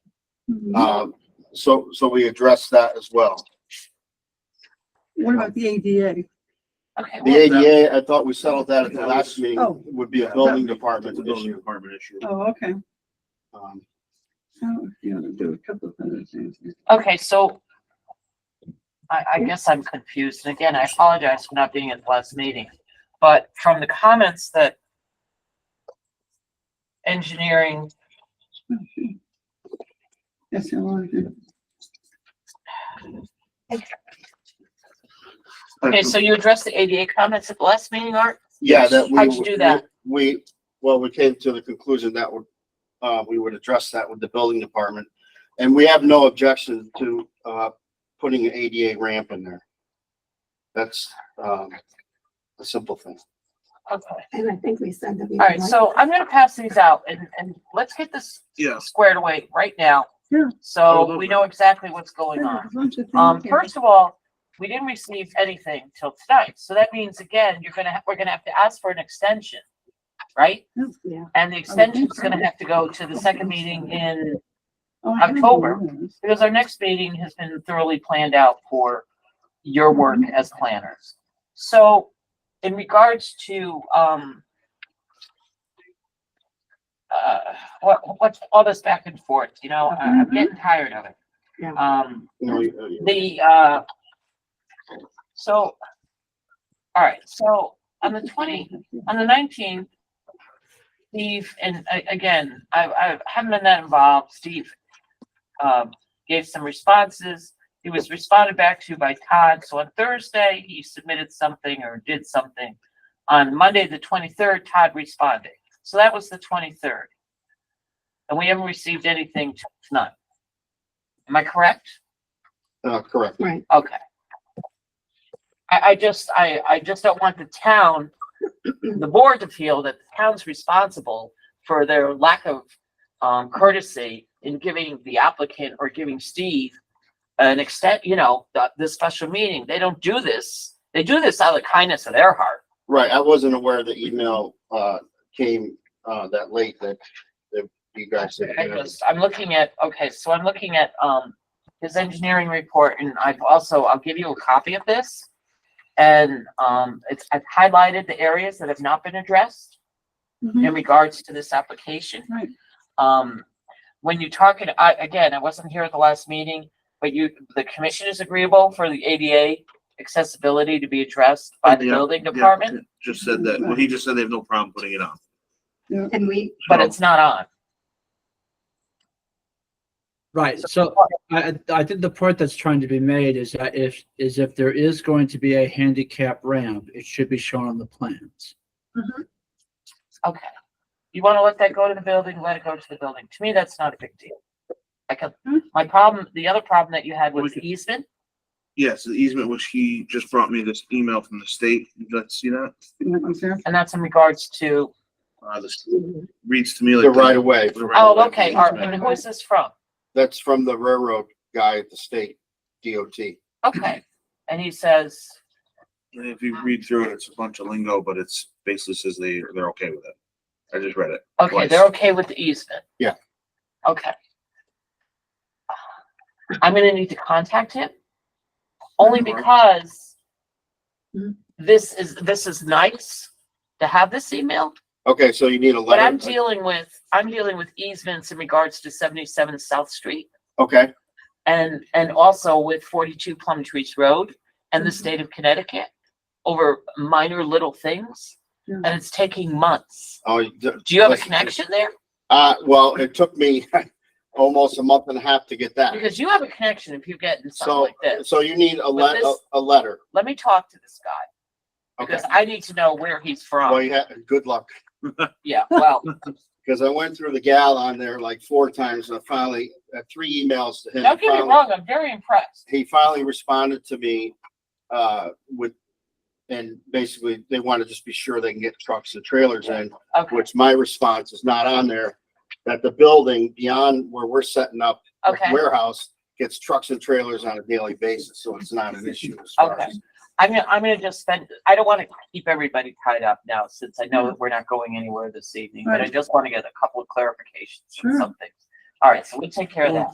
Mm-hmm. Um, so, so we address that as well. What about the ADA? Okay, The well, ADA, I thought we settled that at the last meeting, Oh. would be a building That's department a building issue. department issue. Oh, okay. Um, So, you know, do a couple of other things. okay, so I, I guess I'm confused. And again, I apologize for not being at the last meeting. But from the comments that engineering That's how I do. Okay, so you addressed the ADA comments at the last meeting, Art? Yeah, that we. How'd you do that? We, well, we came to the conclusion that would, uh, we would address that with the building department. And we have no objection to, uh, putting an ADA ramp in there. That's, um, a simple thing. Okay. And I think we said that we. All right, so I'm gonna pass these out and, and let's get this Yes. squared away right now. Yeah. So we know exactly what's going on. Um, first of all, we didn't receive anything till tonight, so that means again, you're gonna, ha- we're gonna have to ask for an extension, right? Yeah. And the extension's gonna have to go to the second meeting in, Oh, October. because our next meeting has been thoroughly planned out for your work as planners. So in regards to, um, uh, what, what's all this back and forth, you know, I- I'm getting tired of it. Yeah. Um, You know, you- you- the, uh, so, all right, so on the twenty, on the nineteenth, Steve, and a- again, I, I haven't been that involved, Steve, um, gave some responses. He was responded back to by Todd, so on Thursday, he submitted something or did something. On Monday, the twenty-third, Todd responded, so that was the twenty-third. And we haven't received anything till tonight. Am I correct? Uh, correct. Right. Okay. I, I just, I, I just don't want the town, the board to feel that the town's responsible for their lack of, um, courtesy in giving the applicant or giving Steve an extent, you know, the, the special meeting. They don't do this. They do this out of the kindness of their heart. Right, I wasn't aware the email, uh, came, uh, that late that, that you guys. had- I just, I'm looking at, okay, so I'm looking at, um, his engineering report and I've also, I'll give you a copy of this. And, um, it's, I've highlighted the areas that have not been addressed Mm-hmm. in regards to this application. Right. Um, when you talk, and I, again, I wasn't here at the last meeting, but you, the commission is agreeable for the ADA accessibility to be addressed by the Yeah, building yeah, department, Just said that, well, he just said they have no problem putting it on. And we, but So- it's not on. Right, so I, I- I think the point that's trying to be made is that if, is if there is going to be a handicap ramp, it should be shown on the plans. Okay. You wanna let that go to the building, let it go to the building. To me, that's not a big deal. I can, Hmm. my problem, the other problem that you had was We could- easement. Yes, the easement, which he just brought me this email from the state. Let's see that. And that's in regards to, Uh, this reads to me like. The right of way, the right of oh, way. okay, all Art, right. who is this from? that's from the railroad guy at the state DOT. Okay, and he says, And If you read through it, it's a bunch of lingo, but it's basically says they, they're okay with it. I just read it. okay, they're okay with the easement. Yeah. Okay. I'm gonna need to contact him, only Mhm. because Mhm. this is, this is nice to have this email, Okay, so you need a But I'm letter. dealing with, I'm dealing with easements in regards to seventy-seven South Street Okay, and, and also with forty-two Plum Trees Road and Mm-hmm. the state of Connecticut over minor little things, Yeah. and it's taking months. oh, you d- Do you have a Listen, connection there? uh, well, it took me almost a month and a half to get that. Because you have a connection if you get in something So, like this. so you need a With le- a, this- a letter. Let me talk to this guy, Okay, because I need to know where he's well, from. you had, good luck, Yeah, well, because I went through the gal on there like four times and I finally, uh, three emails to him. don't get me Finally- wrong, I'm very impressed. He finally responded to me, uh, with, and basically they want to just be sure they can get trucks and trailers in. Okay, which my response is not on there, that the building beyond where we're setting up the okay. warehouse gets trucks and trailers on a daily basis, so it's not an issue as far as. I'm gonna, I'm gonna just spend, I don't wanna keep everybody tied up now, since I know that we're not going anywhere this evening, but I Right. just wanna get a couple of clarifications Sure. on some things. All right, so we take care of that.